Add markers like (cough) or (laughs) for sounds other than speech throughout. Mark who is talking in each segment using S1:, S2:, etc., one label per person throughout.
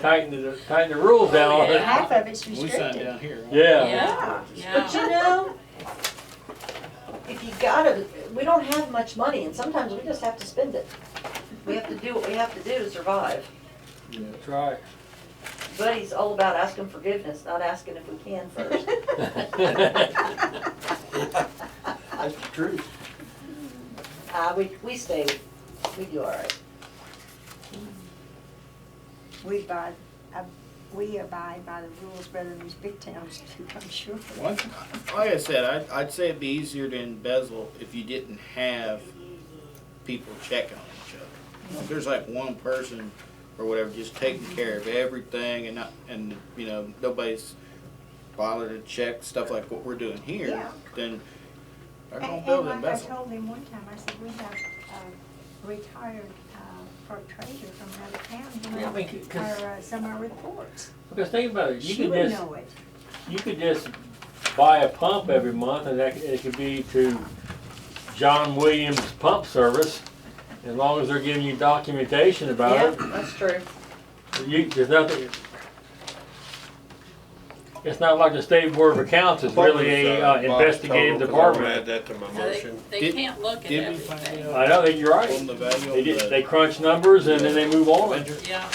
S1: tighten the, tighten the rules down on (laughs) it.
S2: Half of it's
S3: We signed
S2: restricted.
S3: down here.
S1: Yeah,
S4: Yeah,
S2: But
S4: yeah.
S2: you know, if you gotta, we don't have much money and sometimes we just have to spend it. We have to do what we have to do to survive.
S1: that's right.
S2: Buddy's all about asking forgiveness, not asking if we can first.
S3: (laughs) That's the truth.
S2: Uh, we, we stay, we do all right.
S5: We abide, ab- we abide by the rules better than these big towns do, I'm sure.
S3: Like I said, I'd, I'd say it'd be easier to embezzle if you didn't have people checking on each other. If there's like one person or whatever just taking care of everything and not, and, you know, nobody's bothered to check stuff like what we're doing here,
S5: Yeah.
S3: then they're gonna
S5: And,
S3: build
S5: and
S3: an
S5: like I
S3: embezzle.
S5: told him one time, I said, we have a retired, uh, clerk treasurer from another town,
S1: Yeah, I mean,
S5: you
S1: 'cause-
S5: know, or uh, some of our reports.
S1: Because think about it, you
S5: She
S1: could
S5: would
S1: just,
S5: know it.
S1: you could just buy a pump every month and that, it could be to John Williams Pump Service. As long as they're giving you documentation
S2: Yeah,
S1: about
S2: that's true.
S1: it, you, there's nothing. It's not like the state board of accounts is really a uh, investigative
S6: Add
S1: department.
S6: that to my
S4: No, they,
S6: motion.
S4: they
S3: Did-
S4: can't look at
S3: Did we find
S4: everything.
S3: out
S1: I know, that you're
S3: on
S1: right.
S3: the value
S1: They
S3: of
S1: just,
S3: the
S1: they crunch numbers and then they move on.
S3: ledger?
S4: Yeah,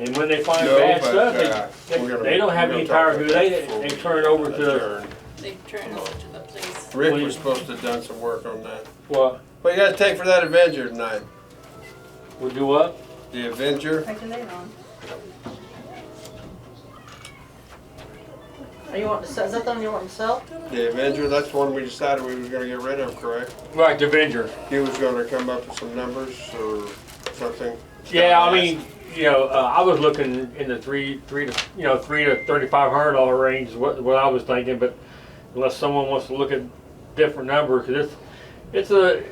S1: And when they find
S6: No,
S1: bad
S6: but,
S1: stuff, they
S6: uh,
S1: They,
S6: we're gonna-
S1: they don't have
S6: we're
S1: any
S6: gonna
S1: power
S6: talk
S1: who
S6: about
S1: they,
S6: that before
S1: they
S6: we
S1: turn it over to the,
S6: adjourn.
S4: they turn it over to the police.
S6: Rick was supposed to have done some work on that.
S1: what,
S6: What you guys take for that Avenger tonight?
S1: we do what?
S6: The Avenger?
S5: Take a lid on.
S2: Are you wanting to, sell- is that the one you want to sell?
S6: The Avenger, that's the one we decided we was gonna get rid of, correct?
S1: Right, the Avenger.
S6: He was gonna come up with some numbers or something.
S1: Yeah, I mean, you know, uh, I was looking in the three, three to, you know, three to thirty-five hundred dollar range is what, what I was thinking, but unless someone wants to look at different numbers, 'cause it's, it's a,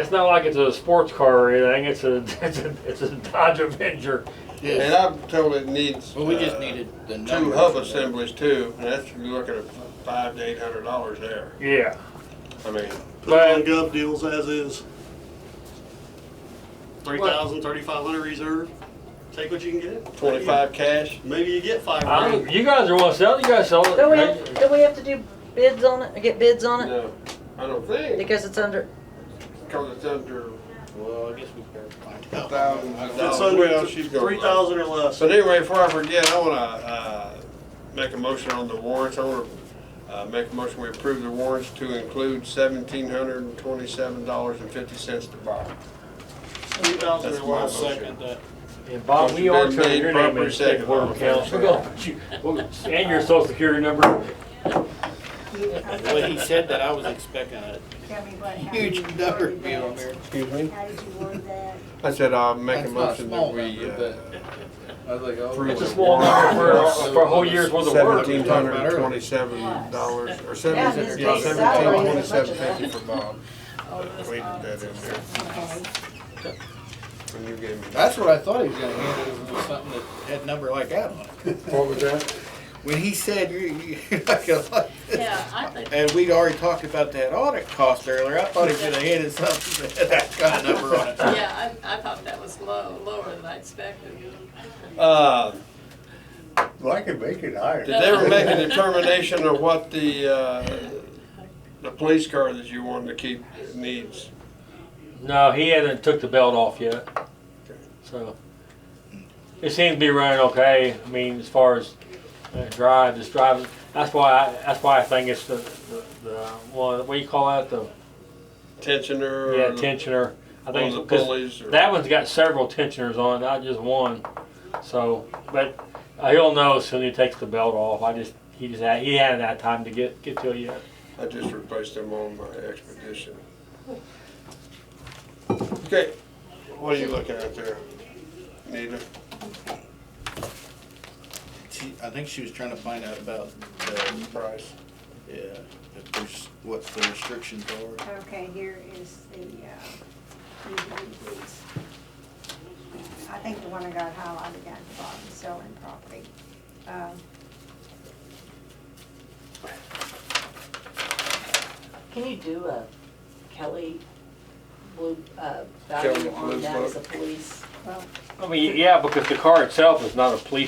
S1: it's not like it's a sports car or anything, it's a, (laughs) it's a, it's a Dodge Avenger.
S6: And
S3: Yeah.
S6: I told it needs.
S3: Well, we just
S6: uh,
S3: needed the numbers.
S6: Two hub
S3: for that.
S6: assemblies too, and that's, you're looking at five to eight hundred dollars there.
S1: Yeah,
S6: I mean,
S7: Put it on gov deals as is. Three
S1: Well-
S7: thousand, thirty-five hundred reserve, take what you can get.
S6: twenty-five cash.
S7: Maybe you get five
S1: I
S7: grand.
S1: don't, you guys are wanting to sell, you guys sell
S2: Do we
S1: it.
S2: have, do we have to do bids on it, or get bids on it?
S6: No, I don't think,
S2: Because it's under,
S6: because it's under
S3: Well, I guess we can find out.
S6: thousand
S7: If it's
S6: dollars.
S7: under three thousand or less,
S6: But anyway, before I forget, I wanna, uh, make a motion on the warrants, I wanna, uh, make a motion, we approve the warrants to include seventeen hundred and twenty-seven dollars and fifty cents to buy.
S7: three thousand
S6: That's
S7: or
S6: my
S7: less.
S6: motion.
S3: uh,
S7: Second that.
S1: And Bob, we are
S6: Motion been
S1: turning
S6: made,
S1: your name
S6: properly
S1: in, state
S6: seconded.
S1: board
S6: All
S1: of
S6: in
S1: accounts, we're
S6: favor?
S1: gonna put you, and your social security number.
S5: You, okay,
S3: Well, he said that, I was expecting a
S5: tell me what, how you
S3: huge
S5: word
S3: number to be
S5: that.
S3: on there.
S6: Excuse me?
S5: How did you word that?
S6: I said, I'll make a
S3: That's not
S6: motion
S3: small
S6: that we,
S3: number,
S6: uh,
S3: I was like, oh.
S6: Three
S1: It's a
S6: with
S1: small
S6: warrants
S1: number for,
S6: plus
S1: for a whole year's worth of work.
S6: Seventeen hundred and twenty-seven dollars, or
S2: Yeah,
S6: seventeen,
S2: his
S6: yeah,
S2: base
S6: seventeen
S2: salary is as much
S6: twenty-seven
S2: as that.
S6: fifty for Bob,
S4: Oh, this
S6: We did that
S4: office
S6: in
S4: is
S6: there.
S4: so nice.
S6: when you gave me.
S3: That's what I thought he was gonna hand us, was something that had a number like that on it.
S6: What was that?
S3: When he said, you, you, (laughs) like a lot-
S4: Yeah, I think,
S3: and we'd already talked about that audit cost earlier, I thought he was gonna hand us something that had that kind of number on it.
S4: yeah, I, I thought that was low, lower than I expected.
S6: Uh,
S8: Well, I could make it higher.
S6: Did they ever make a determination of what the, uh, the police car that you wanted to keep needs?
S1: No, he hasn't took the belt off yet. So it seems to be running okay. I mean, as far as uh, drive, just driving. That's why. I, that's why I think it's the the, the one. What do you call that? The
S6: Tensioner? or
S1: yeah tensioner. I
S6: One
S1: think
S6: of the
S1: it's 'cause
S6: pulleys? or-
S1: That one's got several tensioners on it, not just one. So, but uh, he'll know as soon as he takes the belt off. I just he just had, he hadn't had time to get get to it yet.
S6: I just replaced them on my expedition. Okay, what are you looking at there? Nita?
S3: She, I think she was trying to find out about,
S6: The price?
S3: yeah, if there's, what the restrictions are.
S5: Okay, here is the, uh, DVDs. I think the one I got highlighted down at the bottom, selling property. Um,
S2: can you do a Kelly blue, uh,
S6: Kelly
S2: value
S6: Blue
S2: on that as a
S6: Book.
S2: police?
S5: Well,
S1: I mean, yeah, because the car itself is not a police